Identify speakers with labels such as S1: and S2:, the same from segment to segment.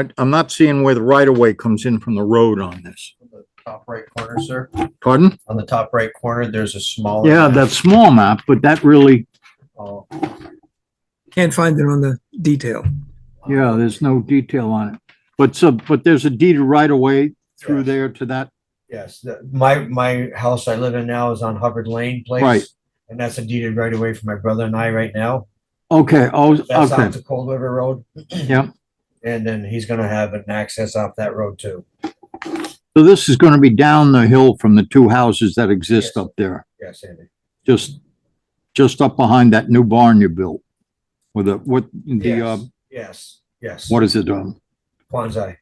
S1: I- I'm not seeing where the right of way comes in from the road on this.
S2: Top right corner, sir.
S1: Pardon?
S2: On the top right corner, there's a smaller.
S1: Yeah, that small map, but that really,
S2: Oh,
S3: Can't find it on the detail.
S1: yeah, there's no detail on it. But so, but there's a deed of right of way through
S2: Yes.
S1: there to that.
S2: Yes, the- my, my house I live in now is on Hubbard Lane Place.
S1: Right.
S2: And that's a deeded right away from my brother and I right now.
S1: Okay, oh,
S2: That's out
S1: okay,
S2: to Cold River Road.
S1: yeah.
S2: And then he's gonna have an access off that road too.
S1: So this is gonna be down the hill from the two houses that exist up there,
S2: Yes, Andy.
S1: just, just up behind that new barn you built. With the, what, the, uh,
S2: Yes, yes.
S1: what is it, um,
S2: Quanzai.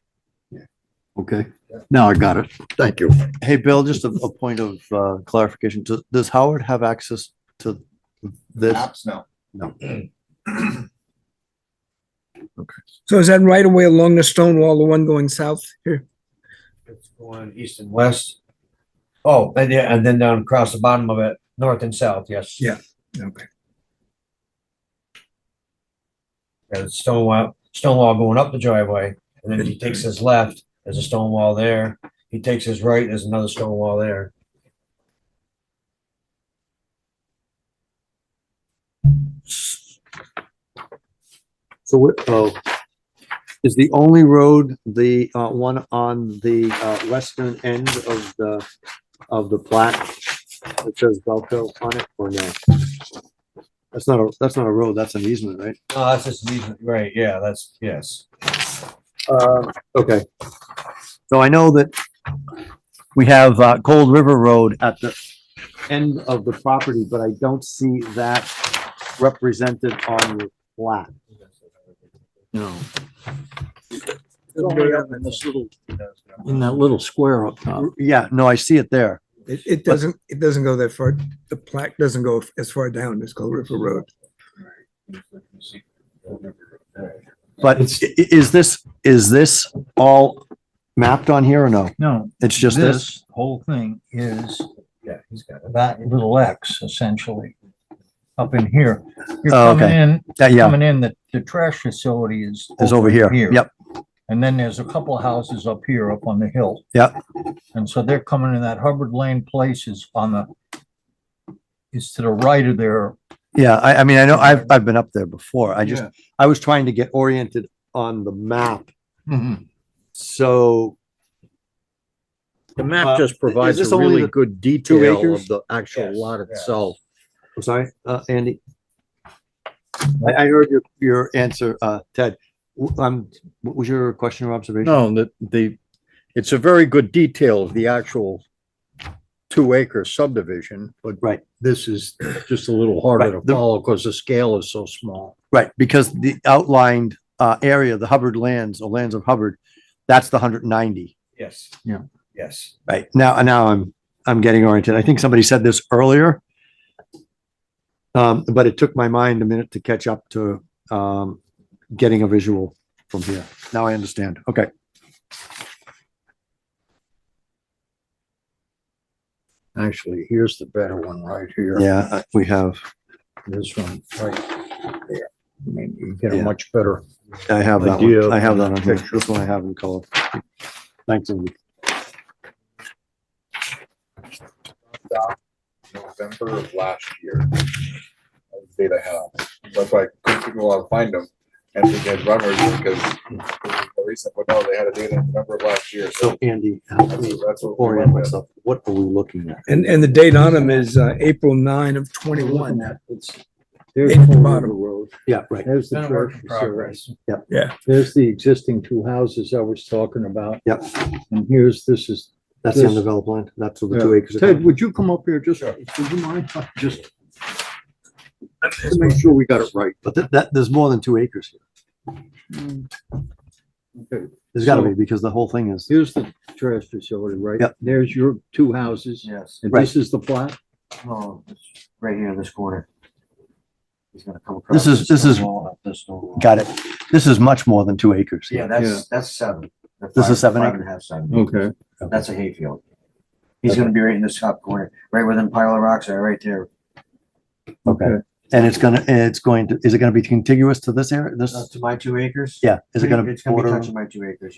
S1: okay, now I got it, thank you.
S4: Hey, Bill, just a, a point of uh, clarification. Does, does Howard have access to this?
S5: Apps now.
S3: So is that right away along the stone wall, the one going south here?
S2: It's going east and west. Oh, and yeah, and then down across the bottom of it, north and south, yes.
S3: Yeah. Okay.
S2: There's a stone wall, stone wall going up the driveway, and then he takes his left, there's a stone wall there. He takes his right, there's another stone wall there.
S4: So what, oh, is the only road the, uh, one on the, uh, western end of the, of the plat? that says Belco on it or no? That's not a, that's not a road, that's an easement, right?
S2: Oh, that's just an easement, right, yeah, that's, yes.
S4: Uh, okay. So I know that we have, uh, Cold River Road at the end of the property, but I don't see that represented on your plat.
S1: No,
S3: It,
S1: in that little square up top.
S4: Yeah, no, I see it there.
S3: it doesn't, it doesn't go that far. The plaque doesn't go as far down as Cold River Road.
S4: But i- i- is this, is this all mapped on here or no?
S6: No,
S4: It's just this?
S6: this whole thing is
S2: Yeah, he's got it.
S6: that little X essentially up in here. You're
S4: Oh,
S6: coming
S4: okay.
S6: in,
S4: Yeah, yeah,
S6: coming in, the, the trash facility is.
S4: it's over here. Yep,
S6: And then there's a couple of houses up here, up on the hill.
S4: Yep.
S6: And so they're coming in that Hubbard Lane place is on the, is to the right of their.
S4: yeah. I, I mean, I know I've, I've been up there before. I just,
S6: Yeah.
S4: I was trying to get oriented on the map. Mm-hmm.
S1: Mhm.
S4: So
S1: The
S4: Uh,
S1: map just provides
S4: this
S1: a
S4: only
S1: really
S4: the
S1: good detail
S4: acres?
S1: of the actual
S2: Yes,
S1: lot
S2: yes.
S1: itself.
S4: I'm sorry, uh, Andy. I, I heard your, your answer, uh, Ted. W- Um, what was your question or observation?
S1: No, the, the, it's a very good detail of the actual two acre subdivision, but
S4: Right.
S1: this is just a little harder to
S4: Right, the-
S1: follow because the scale is so small.
S4: Right, because the outlined, uh, area, the Hubbard lands, or lands of Hubbard, that's the hundred and ninety.
S2: Yes.
S1: Yeah.
S2: Yes.
S4: Right, now, now I'm, I'm getting oriented. I think somebody said this earlier. Um, but it took my mind a minute to catch up to, um, getting a visual from here. Now I understand. Okay.
S1: Actually, here's the better one right here.
S4: Yeah, uh, we have,
S1: This one right there. I mean, you get a
S4: Yeah.
S1: much better.
S4: I have that
S1: Idea
S4: one.
S1: of
S4: I have that
S1: the
S4: on here.
S1: picture.
S4: This one I have in color. Thanks, Andy.
S5: November of last year. That was the Data had, that's why I couldn't figure out how to find them, and they had runners because the recent, but no, they had a data in November of last year, so
S4: So Andy, help
S5: that's
S4: me
S5: that's what we
S4: orient
S5: went with.
S4: myself. What are we looking at?
S3: And, and the date on them is, uh, April nine of twenty-one.
S1: There's
S3: At the
S1: Cold
S3: bottom.
S1: River Road.
S4: Yeah, right.
S1: There's
S2: Been
S1: the
S2: a work
S1: church
S2: in
S1: facility.
S2: progress.
S1: There's the existing two houses I was talking about.
S4: Yep.
S1: And here's, this is
S4: That's the
S1: This-
S4: undeveloped land. That's where the
S1: Yeah.
S4: two acres. are
S1: Ted,
S4: coming.
S1: would you come up here just,
S2: Sure.
S1: would you mind, just to make sure we got it right?
S4: But that, that, there's more than two acres here.
S1: Okay.
S4: There's gotta
S1: So-
S4: be because the whole thing is,
S1: Here's the trash facility, right?
S4: Yep.
S1: There's your two houses,
S2: Yes.
S1: and
S4: Right.
S1: this is the flat?
S2: Oh, it's right here in this corner. He's gonna come across.
S4: This is- this
S2: stone
S4: is-
S2: wall, up this stone wall.
S4: got it. This is much more than two acres.
S2: Yeah,
S1: Yeah.
S2: that's, that's seven. They're
S4: This is
S2: five-
S4: seven
S2: Five
S4: acre?
S2: and a half, seven.
S1: Okay.
S2: That's a hayfield. He's gonna be right in this top corner, right where them pile of rocks are, right there.
S4: Okay. And it's gonna, it's going to, is it gonna be contiguous to this area,
S2: Uh,
S4: this,
S2: to my two acres?
S4: yeah, is it gonna
S2: It's gonna be
S4: border?
S2: touching my two acres, yeah.